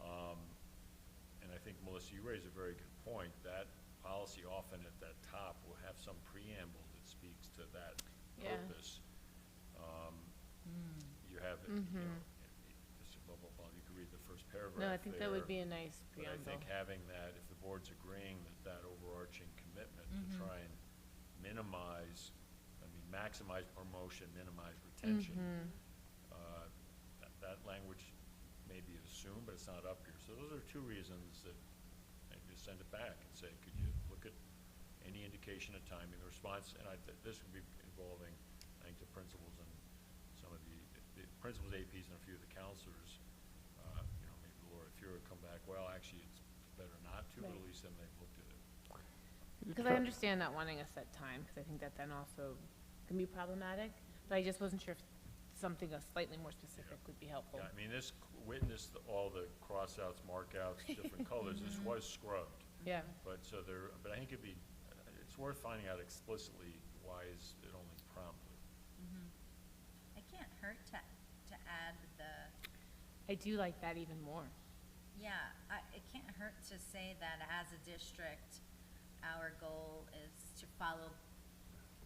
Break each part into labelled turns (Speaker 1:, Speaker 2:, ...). Speaker 1: Um, Melissa, you raise a very good point. That policy often at that top will have some preamble that speaks to that
Speaker 2: Yeah.
Speaker 1: purpose. Um, You have, you know, it's blah, blah, blah, you could read the first paragraph
Speaker 2: Mm-hmm. No, I think that would
Speaker 1: there.
Speaker 2: be a nice
Speaker 1: But I
Speaker 2: preamble.
Speaker 1: think having that, if the board's agreeing that that overarching commitment to
Speaker 2: Mhm.
Speaker 1: try and minimize, I mean, maximize promotion, minimize
Speaker 2: Mm-hmm.
Speaker 1: retention, uh, that, that language may be assumed, but it's not up here. So those are two reasons that I just send it back and say, could you look at any indication of timing, the response, and I, thi- this would be involving, I think, the principals and some of the, the principals, APs, and a few of the counselors. Uh, You know, maybe Laura, if you were to come back, well, actually, it's better not to, but at
Speaker 2: Right.
Speaker 1: least then they've looked at it.
Speaker 2: Because I understand not wanting a set time, because I think that then also can be problematic, but I just wasn't sure if something uh, slightly more specific would be helpful.
Speaker 1: Yeah, I mean, this witnessed all the crossouts, markouts, different colors, this was scrubbed.
Speaker 2: Yeah,
Speaker 1: But so there, but I think it'd be, it's worth finding out explicitly why is it only promptly.
Speaker 3: It can't hurt to, to add the,
Speaker 2: I do like that even more.
Speaker 3: yeah, I, it can't hurt to say that as a district, our goal is to follow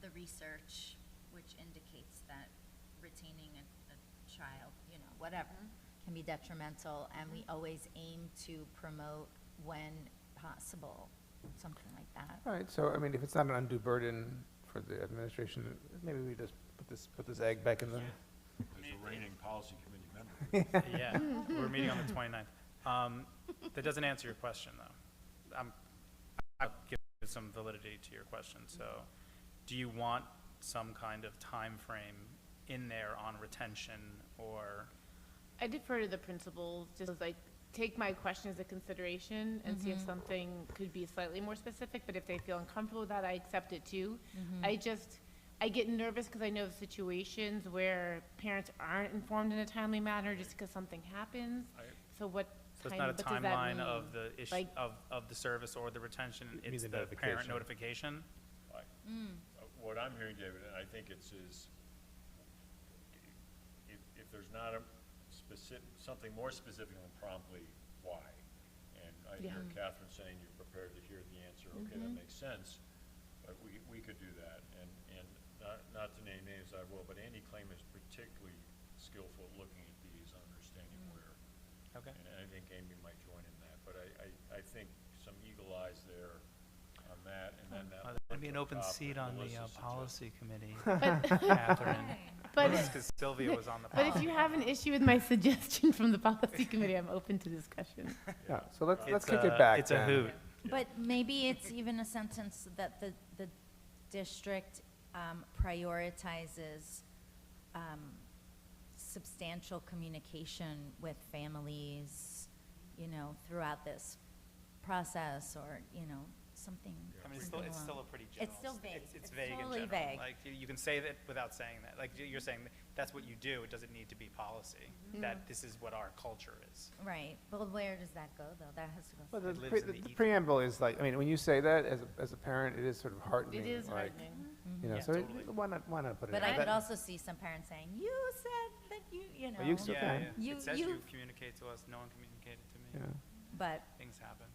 Speaker 3: the research, which indicates that retaining a, a child, you know, whatever, can be detrimental, and we always aim to promote when possible, something like that.
Speaker 4: All right, so, I mean, if it's not an undue burden for the administration, maybe we just put this, put this egg back in the,
Speaker 1: As a reigning policy committee member.
Speaker 5: Yeah, we're meeting on the 29th. Um, That doesn't answer your question, though. I'm- I'll give some validity to your question. So do you want some kind of time frame in there on retention or,
Speaker 2: I defer to the principals, just as like, take my question as a consideration and see if something could be slightly more specific, but if they feel uncomfortable with that, I accept it too. I just, I get nervous because I know of situations where parents aren't informed in a timely manner just because something happens.
Speaker 1: I-
Speaker 2: So what
Speaker 5: so it's
Speaker 2: time,
Speaker 5: not a
Speaker 2: what does that mean?
Speaker 5: timeline of the issue,
Speaker 2: Like-
Speaker 5: of, of the service or the retention?
Speaker 4: mean
Speaker 5: It's
Speaker 4: the
Speaker 5: the
Speaker 4: notification.
Speaker 5: parent notification?
Speaker 1: I- uh, What I'm hearing, David, and I think it's is, if, if there's not a specific, something more specific than promptly, why? And I hear
Speaker 2: Yeah.
Speaker 1: Catherine saying you're prepared to hear the answer, okay, that makes sense, but we, we could do that. And, and not, not to name names, I will, but Andy Claim is particularly skillful at looking at these, understanding where
Speaker 5: Okay.
Speaker 1: and I think Amy might join in that, but I, I, I think some eagle eyes there on that, and then that.
Speaker 5: There'd be an open
Speaker 1: laptop
Speaker 5: seat
Speaker 1: that
Speaker 5: on the
Speaker 1: Melissa
Speaker 5: uh,
Speaker 1: suggested.
Speaker 5: policy committee, Catherine.
Speaker 2: But,
Speaker 5: Because Sylvia was on the
Speaker 2: but if
Speaker 5: policy.
Speaker 2: you have an issue with my suggestion from the policy committee, I'm open to discussion.
Speaker 4: yeah, so let's, let's
Speaker 5: It's
Speaker 4: kick it
Speaker 5: a-
Speaker 4: back
Speaker 5: It's a
Speaker 4: then.
Speaker 5: hoot.
Speaker 3: But maybe it's even a sentence that the, the district um, prioritizes um, substantial communication with families, you know, throughout this process, or, you know, something.
Speaker 5: I mean, it's still, it's
Speaker 3: along.
Speaker 5: still a pretty general.
Speaker 3: It's still
Speaker 5: st-
Speaker 3: vague.
Speaker 5: It's vague in
Speaker 3: totally
Speaker 5: general.
Speaker 3: vague.
Speaker 5: Like, you- you can say that without saying that. Like, you- you're saying, that that's what you do, it doesn't need to be policy.
Speaker 3: Mm-hmm.
Speaker 5: That this is what our culture is.
Speaker 3: Right, but where does that go, though? That has to go.
Speaker 4: Well, the
Speaker 5: It lives
Speaker 4: pre-
Speaker 5: in the
Speaker 4: the
Speaker 5: ether.
Speaker 4: preamble is like, I mean, when you say that, as, a- as a parent, it is sort of heartening.
Speaker 2: It is
Speaker 4: like,
Speaker 2: heartening.
Speaker 4: You know,
Speaker 5: Yeah,
Speaker 4: so it-
Speaker 5: totally.
Speaker 4: why not, why not put it?
Speaker 3: But
Speaker 4: in?
Speaker 3: I could
Speaker 4: That-
Speaker 3: also see some parents saying, you said that you, you know.
Speaker 4: Well, you still-
Speaker 5: Yeah,
Speaker 4: Okay.
Speaker 5: yeah.
Speaker 3: You-
Speaker 5: It says
Speaker 3: you-
Speaker 5: you communicate to us, no one communicated to
Speaker 4: yeah.
Speaker 5: me.
Speaker 3: But,
Speaker 5: Things happen.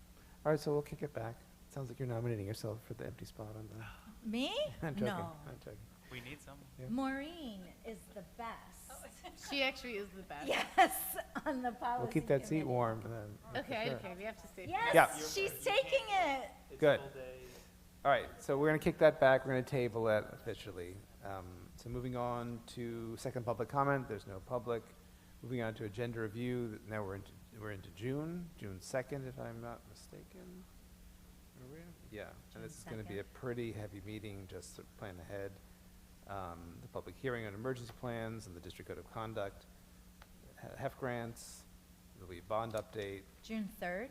Speaker 4: All right, so we'll kick it back. Sounds like you're nominating yourself for the empty spot on the,
Speaker 3: me?
Speaker 4: I'm joking,
Speaker 3: No.
Speaker 4: I'm joking.
Speaker 5: We need someone.
Speaker 3: Maureen is the best.
Speaker 2: She actually is the best.
Speaker 3: Yes, on the policy.
Speaker 4: We'll keep that seat
Speaker 3: committee.
Speaker 4: warm then. for
Speaker 2: Okay,
Speaker 4: sure.
Speaker 2: okay, we have to save.
Speaker 4: Yeah.
Speaker 3: Yes, she's taking it.
Speaker 4: Good. All right, so we're going to kick that back, we're going to table it officially. Um, So moving on to second public comment, there's no public. Moving on to agenda review, th- now we're into, we're into June, June 2nd, if I'm not mistaken. Are we? Yeah, and this is
Speaker 3: June
Speaker 4: going to be a
Speaker 3: 2nd.
Speaker 4: pretty heavy meeting, just to plan ahead. Um, The public hearing on emergency plans and the district code of conduct, he- HEF grants, there'll be a bond update.
Speaker 3: June third?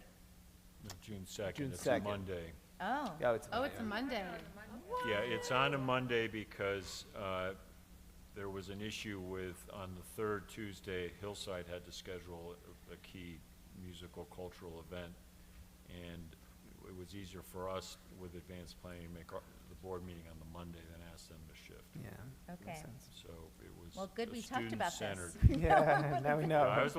Speaker 1: June
Speaker 4: June
Speaker 1: second, it's a
Speaker 4: 2nd.
Speaker 1: Monday.
Speaker 3: Oh,
Speaker 4: Oh, it's
Speaker 2: Oh, it's a
Speaker 4: Monday.
Speaker 2: Monday.
Speaker 1: Yeah, it's on a Monday because, uh, there was an issue with, on the third Tuesday, Hillside had to schedule a- a key musical cultural event. And it was easier for us with advanced planning, to make our, the board meeting on the Monday than ask them to shift.
Speaker 4: Yeah. makes
Speaker 3: Okay.
Speaker 4: sense.
Speaker 1: So it was.
Speaker 3: well, good,
Speaker 1: a
Speaker 3: we talked about this.
Speaker 1: student-centered.
Speaker 4: Yeah, now we know.
Speaker 1: I was